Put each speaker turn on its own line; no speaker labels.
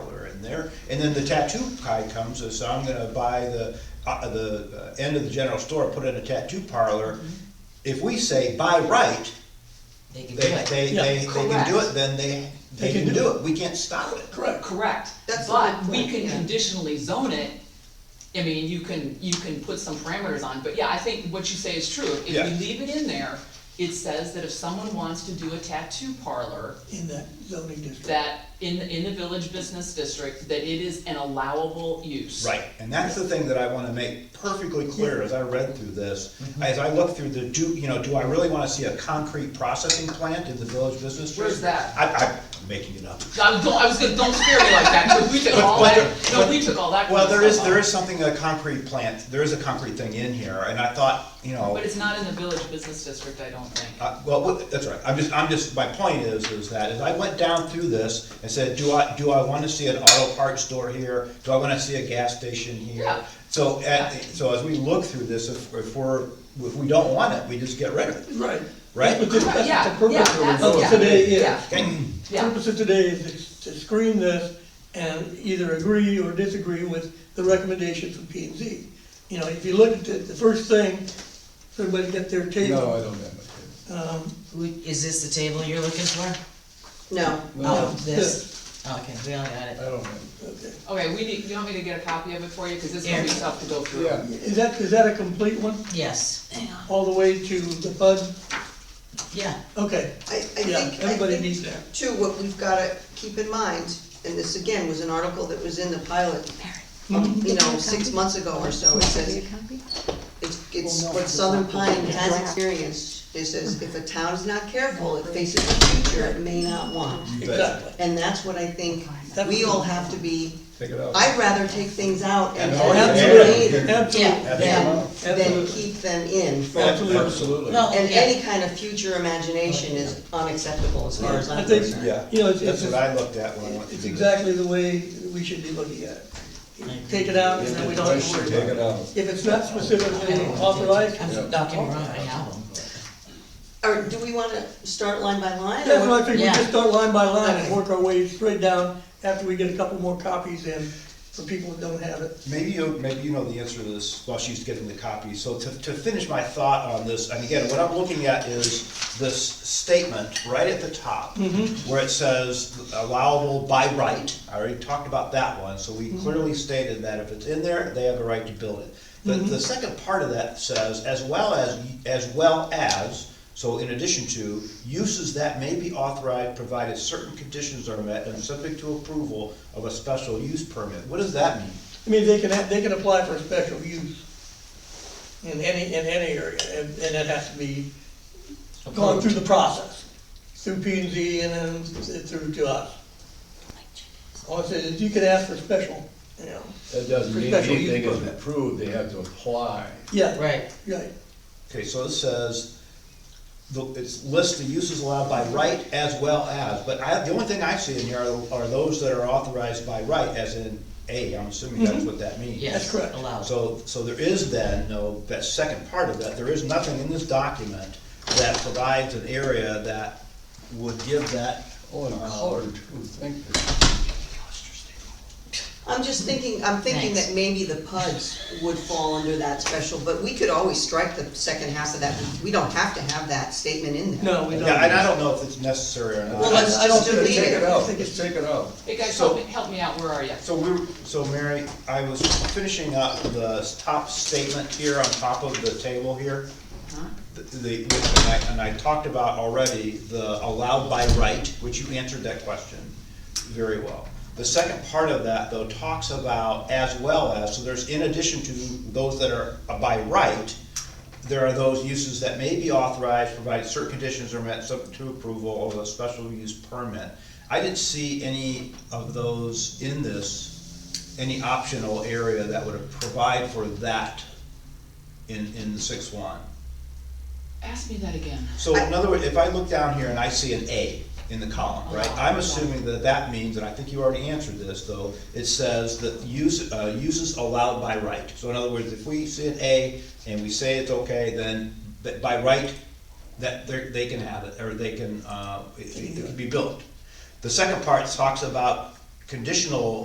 there. And then the tattoo guy comes, and so I'm gonna buy the, uh, the uh, end of the general store, put in a tattoo parlor. If we say by right,
They can
they,
do it.
they,
Yeah.
they, they can do it,
Correct.
then they, they can do it, we can't stop it.
Correct.
Correct,
That's the
but
good
we
point,
can
yeah.
conditionally zone it. I mean, you can, you can put some parameters on, but yeah, I think what you say is true. If
Yeah.
we leave it in there, it says that if someone wants to do a tattoo parlor,
in that zoning district.
that in, in the village business district, that it is an allowable use.
Right, and that's the thing that I wanna make perfectly clear as I read through this. As I look through the, do, you know, do I really wanna see a concrete processing plant in the village business district?
Where's that?
I, I'm making it up.
I was, go- I was gonna, don't scare me like that, because we took
But-
all
but
that,
there-
no,
but-
we took all that.
Well,
kind of
there is,
stuff
there
out.
is something, a concrete plant, there is a concrete thing in here, and I thought, you know.
But it's not in the village business district, I don't think.
Uh, Well, what- that's right, I'm just, I'm just, my point is, is that, as I went down through this and said, do I, do I wanna see an auto parts store here? Do I wanna see a gas station here?
Yeah.
So, at, so as we look through this, if, if we're, if we don't want it, we just get rid of it.
Right.
Right?
But this-
Yeah,
that's
yeah,
what the purpose
that's-
of
yeah,
today is.
yeah.
The
Yeah.
Purpose of today is to screen this and either agree or disagree with the recommendation from P and Z. You know, if you look at the, the first thing, everybody got their
No, I
table.
don't have it.
Who, is this the table you're looking for?
No,
Oh,
This.
this, okay, we all got
I
it.
don't have
Okay.
Okay, we need, you want me to get a copy of it for you, because this is gonna be
Yeah.
tough to go
it.
through.
Yeah,
Is that, is that a complete one,
Yes,
all the way to the bud?
yeah,
Okay,
I, I think.
yeah,
I
everybody
think,
needs that.
Too, what we've gotta keep in mind, and this again was an article that was in the pilot, um, you know, six months ago or so, it says, it's, it's what Southern Pine has experienced. It says, if a town is not careful, it faces a future it may not want.
Exactly.
And that's what I think we all have to be,
take it out.
I'd rather take things out and.
Yeah,
Absolutely,
Yeah.
absolutely.
Yeah, than, than
Absolutely.
keep them in. for-
Absolutely.
well,
And
yeah,
any kind of future imagination is unacceptable as far as
I
I'm
think-
concerned.
Yeah,
You know, it's-
that's
it's-
what I looked at when I went through
It's
this.
exactly the way we should be looking at it. Take it out, and then we don't have to worry
Take
about it.
it out.
If it's not specifically authorized,
I'm, don't get me wrong, I have them.
Or do we wanna start line by line?
that's why I
or-
think we
Yeah.
just start line by line and work our way straight down after we get a couple more copies in for people that don't have it.
Maybe you, maybe you know the answer to this while she's getting the copy. So to, to finish my thought on this, and again, what I'm looking at is this statement right at the top, where it says allowable by right. I already talked about that one, so we clearly stated that if it's in there, they have a right to build it. But the second part of that says, as well as, as well as, so in addition to, uses that may be authorized provided certain conditions are met and subject to approval of a special use permit. What does that mean?
I mean, they can, they can apply for a special use in any, in any area, and, and it has to be gone through the process, through P and Z and then through to us. All I said is you can ask for special, you know,
That doesn't
For
mean
special use
anything is
permit.
approved, they have to apply.
yeah.
Right,
Right,
Okay, so it says, the- it's lists the uses allowed by right as well as, but I, the only thing I see in here are, are those that are authorized by right, as in A, I'm assuming that's what that means.
yes,
correct.
allowed.
So, so there is then, no, that second part of that, there is nothing in this document that provides an area that would give that.
Oh, and
uh,
color too, thank you.
I'm just thinking, I'm thinking
Thanks.
that maybe the PUDs would fall under that special, but we could always strike the second half of that. We don't have to have that statement in there.
no, we don't.
Yeah, and I don't know if it's necessary or
Well,
not.
let's
I- I don't
just
think-
delete
Take
it.
it out,
Take it-
just take it out.
Hey, guys,
So-
help me, help me out, where are you?
So we're, so Mary, I was finishing up the top statement here on top of the table here. The- The, and I, and I talked about already the allowed by right, which you answered that question very well. The second part of that, though, talks about as well as, so there's in addition to those that are by right, there are those uses that may be authorized, provided certain conditions are met, subject to approval of a special use permit. I didn't see any of those in this, any optional area that would provide for that in, in six one.
Ask me that again.
So in other words, if I look down here and I see an A in the column, right, I'm
Uh-huh.
assuming that that means, and I think you already answered this, though, it says that use, uh, uses allowed by right. So in other words, if we see an A and we say it's okay, then that by right, that they're, they can have it, or they can, uh, it it can be built. The second part talks about conditional